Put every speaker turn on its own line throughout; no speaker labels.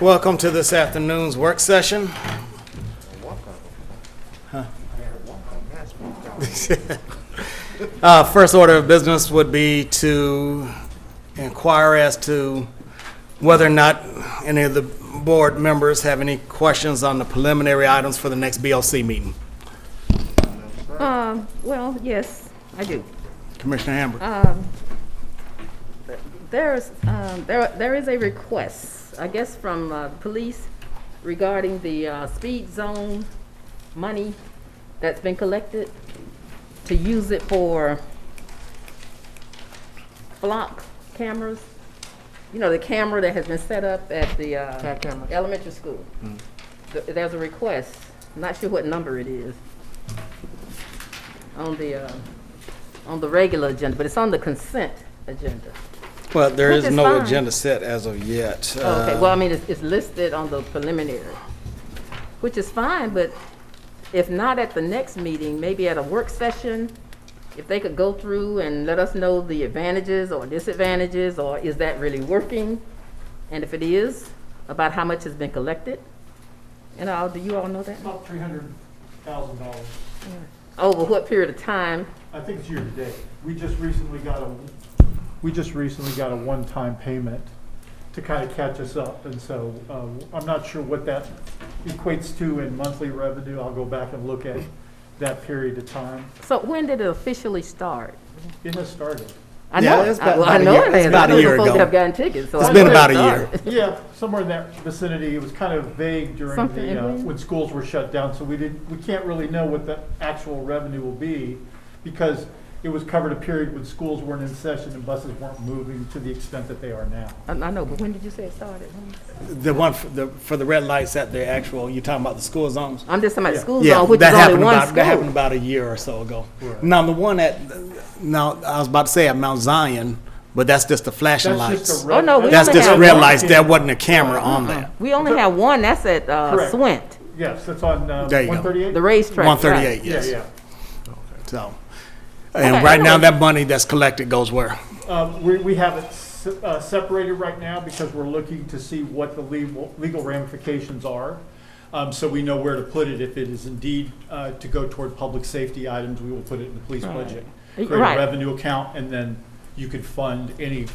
Welcome to this afternoon's work session. Uh, First order of business would be to inquire as to whether or not any of the board members have any questions on the preliminary items for the next BLC meeting.
Um, well, yes, I do.
Commissioner Hamburg,
Uh, There's, um, there, there is a request, I guess, from, uh, police regarding the, uh, speed zone money that's been collected to use it for block cameras. You know, the camera that has been set up at the, uh, elementary school. Th- There's a request, not sure what number it is, on the, uh, on the regular agenda, but it's on the consent agenda.
well, there
Which
is
is
no
fine.
agenda set as of yet.
Oh, Okay,
Uh,
well, I mean, it's, it's listed on the preliminary, which is fine, but if not at the next meeting, maybe at a work session, if they could go through and let us know the advantages or disadvantages, or is that really working? And if it is, about how much has been collected? And all, do you all know that?
About three hundred thousand dollars.
Over what period of time?
I think it's year to date. We just recently got a, we just recently got a one-time payment to kind of catch us up. And so, uh, I'm not sure what that equates to in monthly revenue. I'll go back and look at that period of time.
So when did it officially start?
It has started.
I
Yeah,
know,
it's
I-
about-
well, I
about a
know
year-
it
it's
has. I
about a
know
year
the folks
ago.
that have gotten tickets, so
It's
I
been
know it
about a
started.
year.
Yeah, somewhere in that vicinity. It was kind of vague during
Something
the, uh,
in-
when schools were shut down, so we didn't, we can't really know what the actual revenue will be because it was covered a period when schools weren't in session and buses weren't moving to the extent that they are now.
I I know, but when did you say it started?
The one for the, for the red lights at the actual, you're talking about the school zones?
I'm just talking about school
Yeah,
zone, which
that
is only
happened
one
about,
school.
That happened about a year or so ago.
Right.
Now the one at now I was about to say at Mount Zion, but that's just the flashing
That's
lights.
just a red. Uh-huh.
Oh, no, we
that's
only
just
have
red
one.
lights. There wasn't a camera on that.
We only have one, that's at uh,
Correct.
Swint,
Yes, that's on uh,
There you go.
one thirty-eight?
the racetrack.
One
right.
thirty-eight.
Yeah,
Yes.
yeah.
So, and
Okay,
right now
anyway.
that money that's collected goes where?
Um, we, we have it se- uh, separated right now because we're looking to see what the legal, legal ramifications are. Um, so we know where to put it. If it is indeed, uh, to go toward public safety items, we will put it in the police budget. Create a
Right.
revenue account and then you could fund any,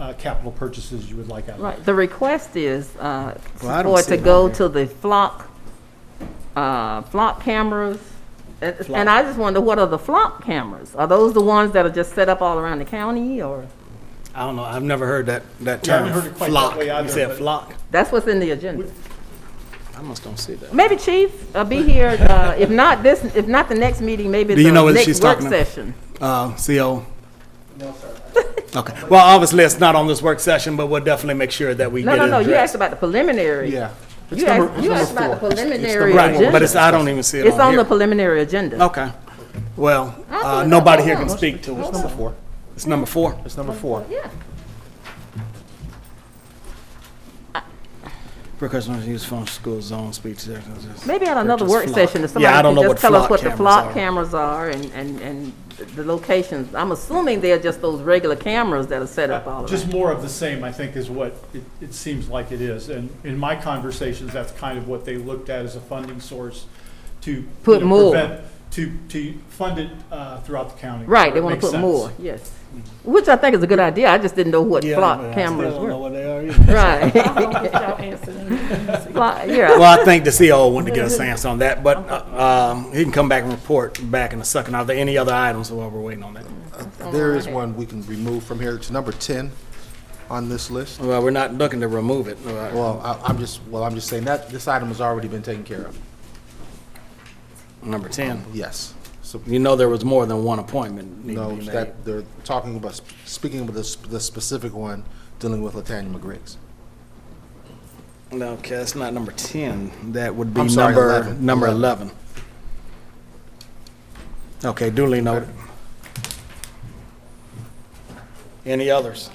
uh, capital purchases you would like out of it.
Right, the request is uh,
Well, I don't
for it
see
to
it on
go
here.
to the flock, uh, flock cameras. And- And I just wonder, what are the flock cameras? Are those the ones that are just set up all around the county, or?
I don't know. I've never heard that that
Yeah, I
term.
haven't heard it quite that
flock.
way either,
you said
but-
flock.
That's what's in the agenda.
I almost don't see that.
Maybe Chief, uh, be here, uh, if not this, if not the next meeting, maybe
Do you
the
know whether she's
next
talking
work
to-
session.
Uh, Co. Okay. Well, obviously it's not on this work session, but we'll definitely make sure that we
No,
get
no,
it
no, you
addressed.
asked about the preliminary.
Yeah. It's
You
number-
asked, you
it's
asked
number
about the
four.
preliminary
Right, but
agenda.
it's I don't even see it.
It's on
here.
the preliminary agenda.
Okay. Well,
I
uh,
thought-
nobody here
hold
can
on.
speak to us.
Number four.
It's number four.
It's number four.
Yeah.
Precautionary use phone school zone speech. therapist.
Maybe at another
Purchase
work
flock.
session, if
Yeah, I don't
somebody
know
could
what
just tell us
flock
what the
cameras
flock
are.
cameras are and, and, and the locations. I'm assuming they're just those regular cameras that are set
Uh,
up all
Uh, Just
around.
more of the same, I think, is what it, it seems like it is. And in my conversations, that's kind of what they looked at as a funding source to. you
Put
know,
more.
prevent- To, to fund it uh, throughout the county.
Right, they
where
want
it
to
makes
put
sense.
more, yes. Which I think is a good idea, I just didn't know what
Mm-hmm. Yeah,
flock
but I still
cameras
don't know
were.
what they are either.
Right. Flock- Yeah,
Well, I think the CEO wanted to get us answer on that, but uh, um, he can come back and report back in a second. Are there any other items while we're waiting on that? Oh,
There is one we can remove from here. It's number ten on this list.
Well, we're not looking to remove it. Uh,
Well, I, I'm just, well, I'm just saying that this item has already been taken care of.
Number 10.
Yes. So,
You know there was more than one appointment needed to
no,
be made.
that, they're talking about, sp- speaking about the, sp- the specific one dealing with Latanya McGriggs.
No, okay, that's not number 10. That would be
I'm sorry,
number,
11.
number 11. Okay, duly noted. Any others?